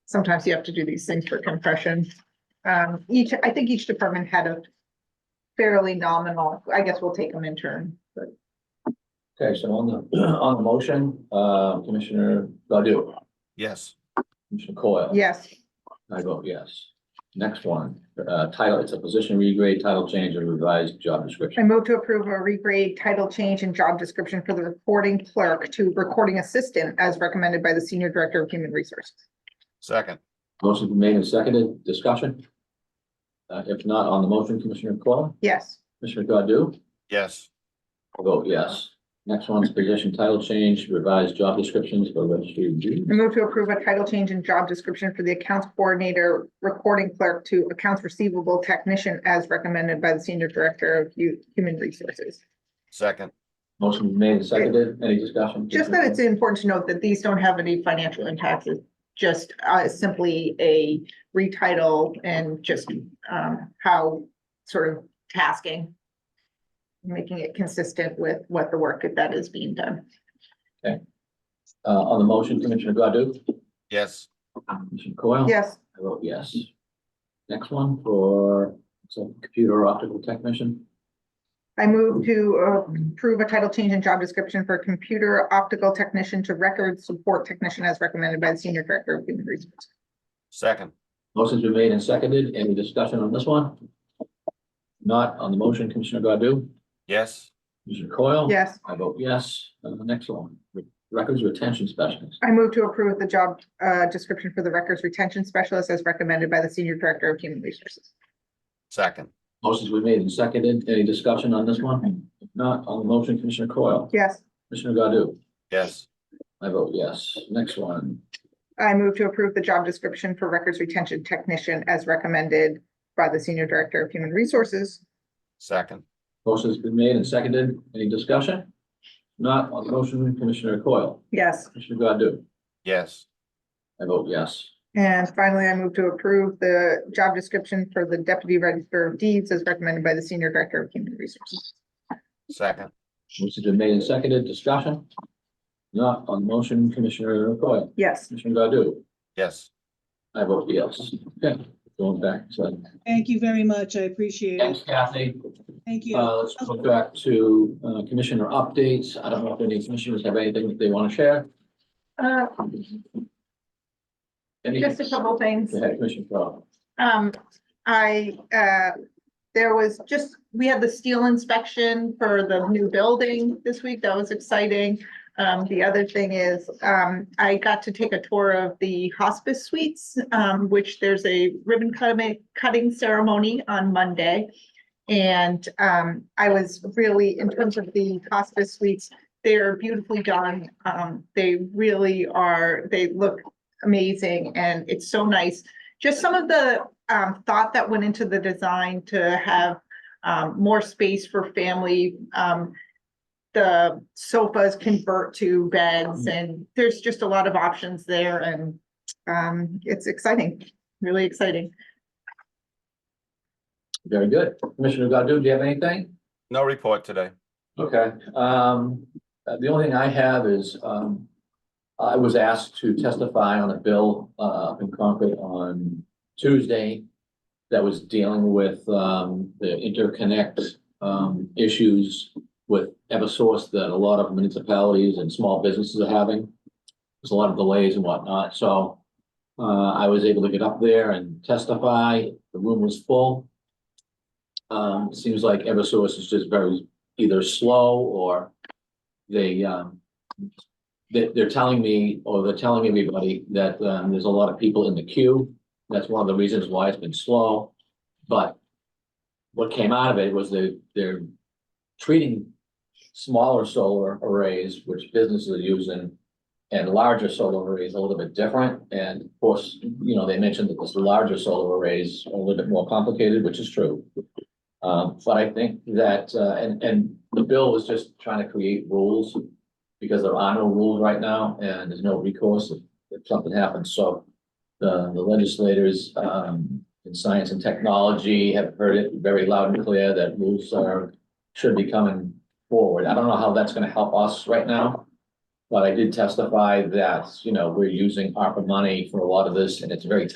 sometimes you have to do these things for compression. Um, each, I think each department had a fairly nominal, I guess we'll take them in turn, but Okay, so on the, on the motion, uh, Commissioner Godu, Yes. Commissioner Coyle. yes. I vote yes. Next one, uh, title, it's a position regrade, title change, and revised job I description. move to approve a regrade title change and job description for the recording clerk to recording assistant as recommended by the Senior Director of Human Resources. Second. Motion been made and seconded, discussion? Uh, if not on the motion, Commissioner Coyle, Yes, Commissioner Godu, Yes. I vote yes. Next one's position title change, revised job descriptions for registry. duties. I move to approve a title change and job description for the accounts coordinator, recording clerk to accounts receivable technician as recommended by the Senior Director of Hu- Human Resources. Second. Motion been made and seconded, any discussion? Just that it's important to note that these don't have any financial impacts, it's just uh simply a retitle and just um how sort of tasking. Making it consistent with what the work that is being done. Uh, on the motion, Commissioner Godu, Yes. Commissioner Coyle. Yes, I vote yes. Next one for, so computer optical technician, I move to uh, approve a title change and job description for computer optical technician to record support technician as recommended by the Senior Director of Human Resources. Second. motion's been made and seconded, any discussion on this one? Not on the motion, Commissioner Godu, Yes. Commissioner Coyle. Yes. I vote yes, and the next one, records retention specialist, I move to approve the job uh description for the records retention specialist as recommended by the Senior Director of Human Resources. Second. motion's been made and seconded, any discussion on this one? If Not on the motion, Commissioner Coyle, Yes. Commissioner Godu, Yes. I vote yes, next one, I move to approve the job description for records retention technician as recommended by the Senior Director of Human Resources. Second. motion's been made and seconded, any discussion? Not on the motion, Commissioner Coyle, Yes. Commissioner Godu, Yes. I vote yes. And finally, I move to approve the job description for the Deputy Register of Deeds as recommended by the Senior Director of Human Resources. Second. Motion's been made and seconded, discussion? Not on the motion, Commissioner Coyle, Yes. Commissioner Godu, Yes. I vote yes. Okay, going back to, Thank you very much. I appreciate thanks it. Kathy. Thank you. Uh, let's go back to, uh, Commissioner updates. I don't know if any commissioners have anything that they want to share. Uh, Any- just a couple things. Go ahead, Commissioner Coyle. Um, I, uh, there was just, we had the steel inspection for the new building this week. That was exciting. Um, the other thing is, um, I got to take a tour of the hospice suites, um, which there's a ribbon cutting, cutting ceremony on Monday. And, um, I was really, in terms of the hospice suites, they're beautifully done. Um, they really are, they look amazing and it's so nice just some of the um thought that went into the design to have um more space for family um the sofas convert to beds and there's just a lot of options there and um it's exciting, really exciting. Very good. Commissioner Godu, do you have anything? No report today. Okay, um, uh, the only thing I have is, um, I was asked to testify on a bill, uh, up in Concord on Tuesday that was dealing with, um, the interconnect, um, issues with Eversource that a lot of municipalities and small businesses are having. There's a lot of delays and whatnot, so, uh, I was able to get up there and testify. The room was full. Um, it seems like Eversource is just very either slow or they, um, they, they're telling me, or they're telling everybody that, um, there's a lot of people in the queue. That's one of the reasons why it's been slow, but what came out of it was they, they're treating smaller solar arrays, which businesses are using, and larger solar arrays a little bit different, and of course, you know, they mentioned that this larger solar arrays are a little bit more complicated, which is true. Um, but I think that, uh, and, and the bill was just trying to create rules because there are no rules right now and there's no recourse if, if something happens. So the, the legislators, um, in science and technology have heard it very loud and clear that rules are, should be coming forward. I don't know how that's gonna help us right now. But I did testify that, you know, we're using ARPA money for a lot of this and it's very